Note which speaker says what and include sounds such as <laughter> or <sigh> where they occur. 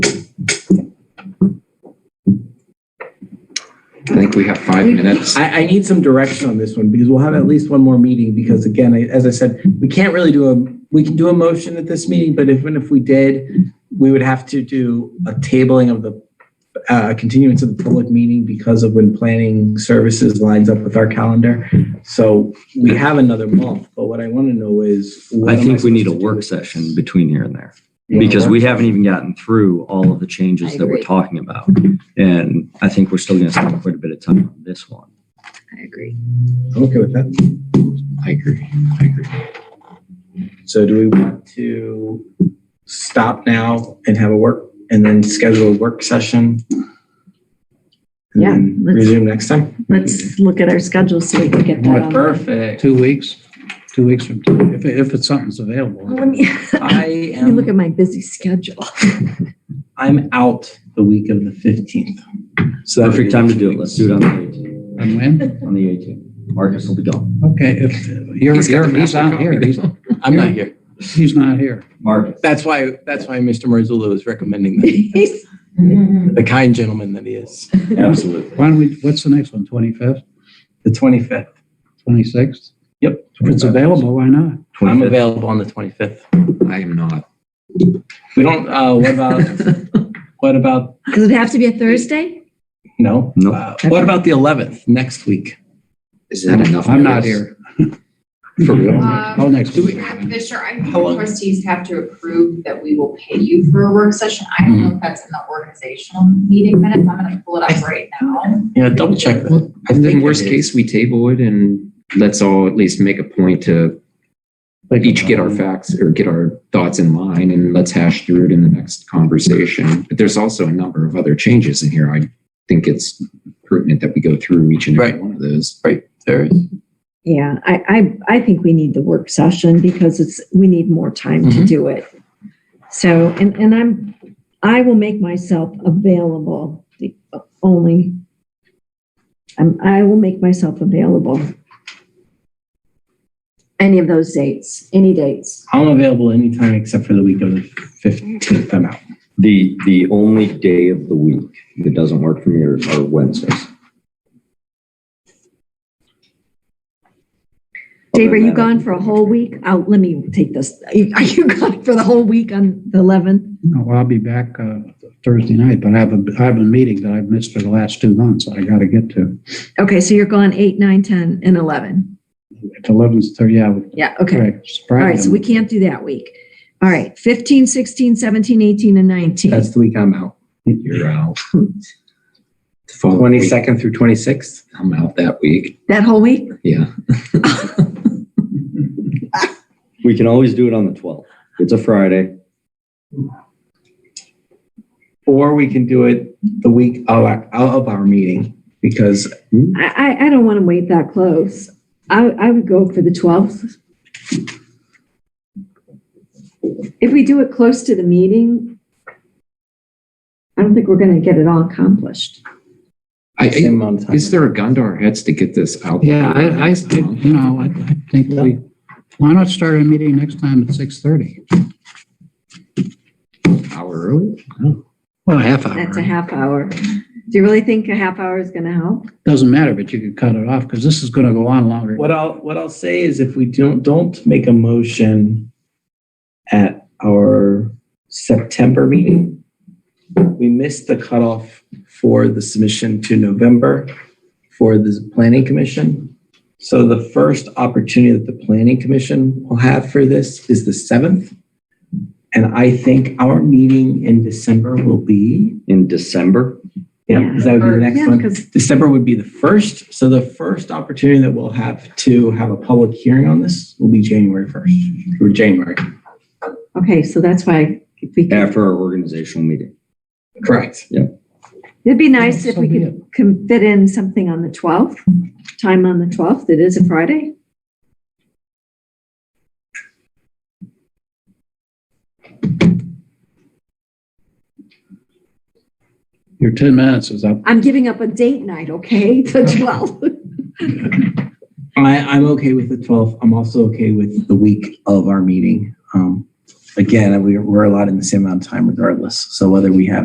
Speaker 1: if we have five minutes?
Speaker 2: I, I need some direction on this one because we'll have at least one more meeting because again, I- as I said, we can't really do a, we can do a motion at this meeting, but even if we did, we would have to do a tabling of the, uh, continuance of the public meeting because of when planning services lines up with our calendar. So we have another month, but what I want to know is. what
Speaker 3: I
Speaker 2: am
Speaker 3: think we need a
Speaker 2: supposed to do
Speaker 3: work
Speaker 2: with this?
Speaker 3: session between here and there
Speaker 2: You want a
Speaker 3: because
Speaker 2: work-
Speaker 3: we haven't even gotten through all of the
Speaker 4: I
Speaker 3: changes that we're
Speaker 4: agree.
Speaker 3: talking about. And I think we're still going to spend quite a bit of time on this one.
Speaker 4: I agree.
Speaker 2: I'm Okay with that.
Speaker 1: I agree. I agree.
Speaker 2: So do we want to stop now and have a work, and then schedule a work session? And
Speaker 4: Yeah,
Speaker 2: then
Speaker 4: let's-
Speaker 2: Resume next
Speaker 4: <laughs>
Speaker 2: time?
Speaker 4: Let's look at our schedule so we can get that on.
Speaker 2: Perfect.
Speaker 5: Two weeks, two weeks from, today, if, if it's something's available.
Speaker 4: Let me <laughs>
Speaker 2: I
Speaker 4: let me look at
Speaker 2: am,
Speaker 4: my busy schedule. <laughs>
Speaker 2: I'm out the week of the 15th. So that'd be
Speaker 3: Perfect time to
Speaker 2: next
Speaker 3: do it.
Speaker 2: week.
Speaker 3: Let's do it on the 18th.
Speaker 5: And when?
Speaker 3: On the 18th. Marcus will be gone.
Speaker 5: Okay, if, you're,
Speaker 1: He's got
Speaker 5: you're,
Speaker 1: the
Speaker 5: he's
Speaker 1: master
Speaker 5: out here,
Speaker 1: copy.
Speaker 5: he's,
Speaker 1: <laughs>
Speaker 6: I'm not here.
Speaker 5: he's not here.
Speaker 3: Marcus.
Speaker 6: That's why, that's why Mr. Marzullo is
Speaker 4: <laughs>
Speaker 6: recommending that,
Speaker 4: He's-
Speaker 6: the kind gentleman that he is.
Speaker 3: Absolutely.
Speaker 5: Why don't we, what's the next one, twenty-fifth,
Speaker 2: The 25th.
Speaker 5: twenty-sixth?
Speaker 2: Yep.
Speaker 5: If it's available, why not?
Speaker 6: I'm
Speaker 3: 25th.
Speaker 6: available on the 25th.
Speaker 1: I am not.
Speaker 2: We don't, uh, what about,
Speaker 4: <laughs>
Speaker 2: what about,
Speaker 4: Does it have to be a Thursday?
Speaker 2: no?
Speaker 3: No.
Speaker 2: Uh, What about the 11th, next week?
Speaker 1: Is that enough?
Speaker 5: I'm not
Speaker 1: notice?
Speaker 5: here.
Speaker 2: For real?
Speaker 5: Oh, next
Speaker 4: Uh,
Speaker 2: Do
Speaker 5: week.
Speaker 2: we-
Speaker 7: Madam Fisher, I think
Speaker 2: How long-
Speaker 7: the trustees have to approve that we will pay you for a work session. I don't know if that's in the organizational meeting minutes. I'm gonna pull it up right now.
Speaker 2: Yeah, double check that.
Speaker 1: I think
Speaker 2: think
Speaker 1: worst
Speaker 2: it
Speaker 1: case, we table it and let's all at least make a point to each get our facts or get our thoughts in line and let's hash through it in the next conversation. But there's also a number of other changes in here. I think it's pertinent that we go through each and every
Speaker 6: Right.
Speaker 1: one of those.
Speaker 6: There,
Speaker 4: Yeah, I, I, I think we need the work session because it's, we need more time to
Speaker 2: Mm-hmm.
Speaker 6: Mhm.
Speaker 4: do it. So, and, and I'm, I will make myself available, the only, I'm, I will make myself available. Any of those dates, any dates.
Speaker 2: I'm available anytime except for the week of the 15th. I'm out.
Speaker 3: The, the only day of the week that doesn't work for me are are Wednesdays.
Speaker 4: Dave, are you gone for a whole week? I'll, let me take this. Are you- are you <laughs> gone for the whole week on the 11th?
Speaker 5: No, well, I'll be back, uh, Thursday night, but I have a, I have a meeting that I've missed for the last two months that I gotta get to.
Speaker 4: Okay, so you're gone 8, 9, 10, and 11.
Speaker 5: It's eleven's thirty, yeah,
Speaker 4: Yeah, okay.
Speaker 5: correct. It's
Speaker 4: All
Speaker 5: Friday.
Speaker 4: right, so we can't do that week. All right, 15, 16, 17, 18, and 19.
Speaker 2: That's the week I'm out.
Speaker 1: You're out. The following week,
Speaker 2: 22nd through 26th.
Speaker 1: I'm out that week.
Speaker 4: <laughs> That whole week?
Speaker 1: Yeah.
Speaker 3: We can always do it on the 12th. It's a Friday.
Speaker 2: Or we can do it the week of our, of our meeting because
Speaker 4: I, I, I don't want to wait that close. I, I would go for the 12th. If we do it close to the meeting, I don't think we're going to get it all accomplished.
Speaker 1: I,
Speaker 2: same
Speaker 1: I-
Speaker 2: amount of time.
Speaker 1: is there a gun to our heads to get this out?
Speaker 5: Yeah, I, I, I- you know, I, I think we, why not start a meeting next time at six thirty?
Speaker 1: Hour early?
Speaker 5: Well, a half
Speaker 4: That's a
Speaker 5: hour.
Speaker 4: half hour. Do you really think a half hour is going to help?
Speaker 5: Doesn't matter, but you could cut it off because this is gonna go on longer.
Speaker 2: What I'll, what I'll say is if we don't, don't make a motion at our September meeting, we missed the cutoff for the submission to November for the planning commission. So the first opportunity that the planning commission will have for this is the 7th. And I think our meeting in December will be,
Speaker 3: In December,
Speaker 2: yeah, 'cause that would be the next
Speaker 4: Yeah,
Speaker 2: one.
Speaker 4: because
Speaker 2: December would be the first. So the first opportunity that we'll have to have a public hearing on this will be January 1st or January.
Speaker 4: Okay, so that's why if we, could-
Speaker 3: after our organizational meeting.
Speaker 2: Correct.
Speaker 4: it'd be nice if
Speaker 5: So
Speaker 4: we
Speaker 5: be
Speaker 4: could can fit in something on the 12th, time on the 12th. It is a Friday.
Speaker 5: Your ten minutes is up.
Speaker 4: I'm giving up a date night, okay, <laughs> the 12th.
Speaker 2: I, I'm okay with the 12th. I'm also okay with the week of our meeting. Um, Again, we- we're allowed in the same amount of time regardless. So whether we have